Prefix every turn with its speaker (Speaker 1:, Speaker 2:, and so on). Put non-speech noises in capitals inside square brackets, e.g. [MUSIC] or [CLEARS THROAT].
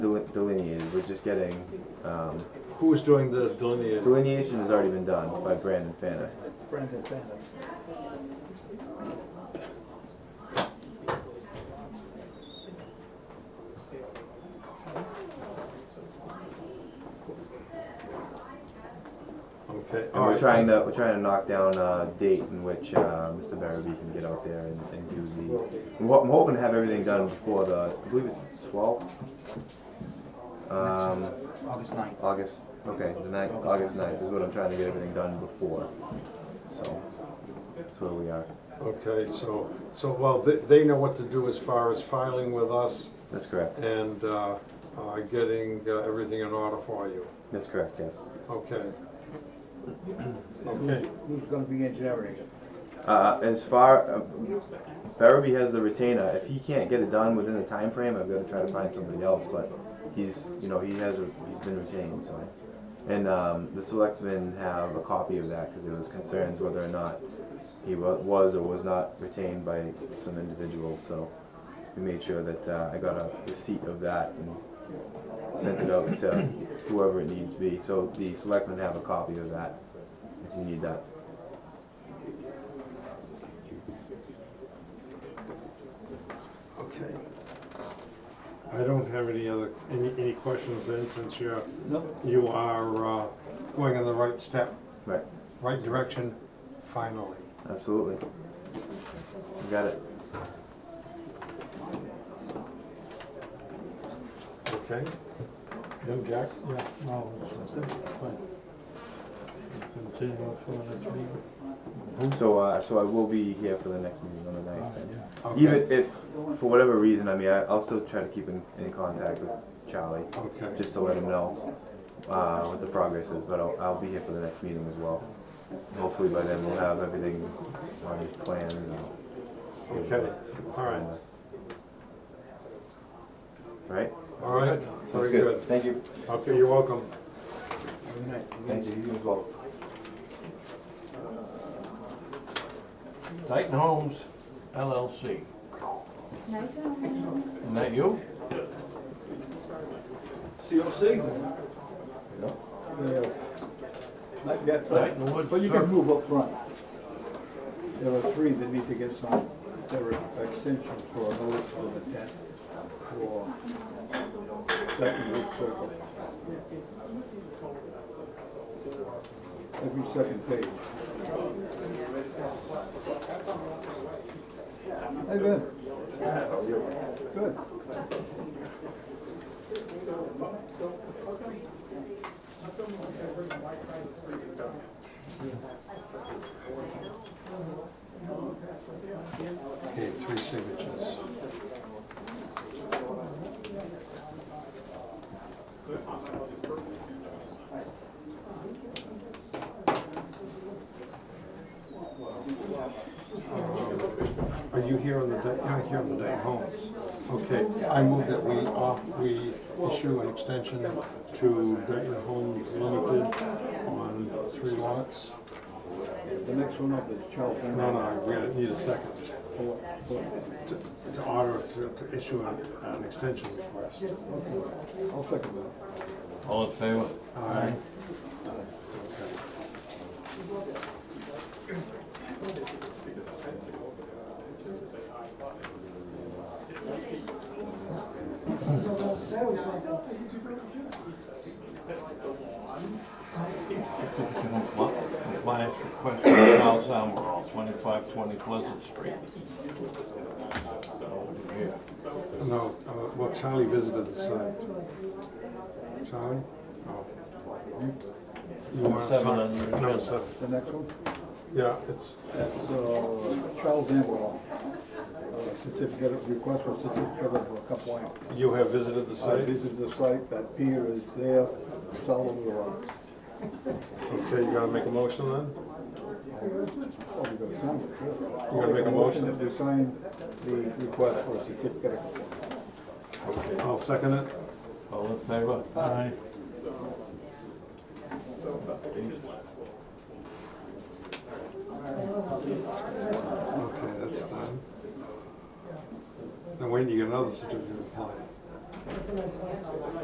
Speaker 1: was just getting, um,
Speaker 2: Who's doing the delineation?
Speaker 1: delineation has already been done by Brandon Fanta.
Speaker 3: Brandon Fanta.
Speaker 2: Okay,
Speaker 1: And
Speaker 2: all
Speaker 1: we're
Speaker 2: right.
Speaker 1: trying to, we're trying to knock down a date in which, uh, Mr. Barrowby can get out there and, and do the, I'm ho- I'm hoping to have everything done before the, I believe it's twelfth? Um,
Speaker 3: August ninth.
Speaker 1: August, okay, the ninth, August ninth is what I'm trying to get everything done before, so, that's where we are.
Speaker 2: Okay, so, so, well, they, they know what to do as far as filing with us
Speaker 1: That's correct,
Speaker 2: and, uh, uh, getting uh, everything in order for you.
Speaker 1: that's correct, yes.
Speaker 2: [CLEARS THROAT] Okay. Okay,
Speaker 3: Who's gonna be engineering it?
Speaker 1: Uh, as far, uh, Barrowby has the retainer. If he can't get it done within the time frame, I've got to try to find somebody else. But he's, you know, he has, he's been retained. So, and um, the selectmen have a copy of that because there was concerns whether or not he wa- was or was not retained by some individuals. So we made sure that uh, I got a receipt of that and sent it out to whoever it needs be. So the selectmen have a copy of that if you need that.
Speaker 2: okay. I don't have any other, any, any questions then, since you're,
Speaker 3: No.
Speaker 2: you are, uh, going in the right step,
Speaker 1: Right.
Speaker 2: right direction, finally.
Speaker 1: Absolutely. You got it.
Speaker 2: Okay? Jim, Jack?
Speaker 4: Yeah, no, it's good, it's fine. Continue for the next meeting.
Speaker 1: So, uh, so I will be here for the next meeting on the ninth. and
Speaker 2: Okay.
Speaker 1: Even if, for whatever reason, I mean, I, I'll still try to keep in, in contact with Charlie,
Speaker 2: Okay.
Speaker 1: just to let him know, uh, what the progress is, but I'll, I'll be here for the next meeting as well. Hopefully by then we'll have everything on plans and.
Speaker 2: Okay, all right.
Speaker 1: Right?
Speaker 2: All right, very good.
Speaker 1: Thank you.
Speaker 2: Okay, you're welcome.
Speaker 3: Good night.
Speaker 1: Thank you, you as well.
Speaker 5: Titan Homes LLC. Isn't that you?
Speaker 6: COC?
Speaker 3: Yeah. Not yet, but,
Speaker 5: Titan Woods.
Speaker 3: but you can
Speaker 5: Circle.
Speaker 3: move up front. There are three that need to get some, there are extensions for a notice for the tent, for Dutton Wood Circle. Every second page. Hey, Ben. Good.
Speaker 2: Okay, three signatures. Are you here on the day, you're not here on the day homes? Okay, I move that we, uh, we issue an extension to Dayton Homes Limited on three lots.
Speaker 3: The next one up is Charles. Van
Speaker 2: No, no, we gotta- need a second to to order, to to issue an an extension request.
Speaker 3: I'll second that.
Speaker 5: All in favor?
Speaker 2: Aye.
Speaker 5: Compliance request from Charles Almerall, twenty-five twenty Pleasant Street.
Speaker 2: No, uh, well, Charlie visited the site. Charlie? Oh. You want to
Speaker 5: Seven
Speaker 2: talk?
Speaker 5: on your
Speaker 2: Number
Speaker 5: agenda.
Speaker 2: seven.
Speaker 3: The next one?
Speaker 2: Yeah, it's,
Speaker 3: That's uh, Charles Amberlaw. Uh, Certificate of request for certificate of compliance.
Speaker 2: you have visited the
Speaker 3: I
Speaker 2: site?
Speaker 3: visited the site, that pier is there, solid rock.
Speaker 2: Okay, you gonna make a motion then?
Speaker 3: Oh, we gotta sign it.
Speaker 2: You gonna make a motion?
Speaker 3: To sign the request for certificate of compliance.
Speaker 2: I'll second it.
Speaker 5: All in favor?
Speaker 4: Aye.
Speaker 2: Okay, that's done. Now, when do you get another certificate of compliance?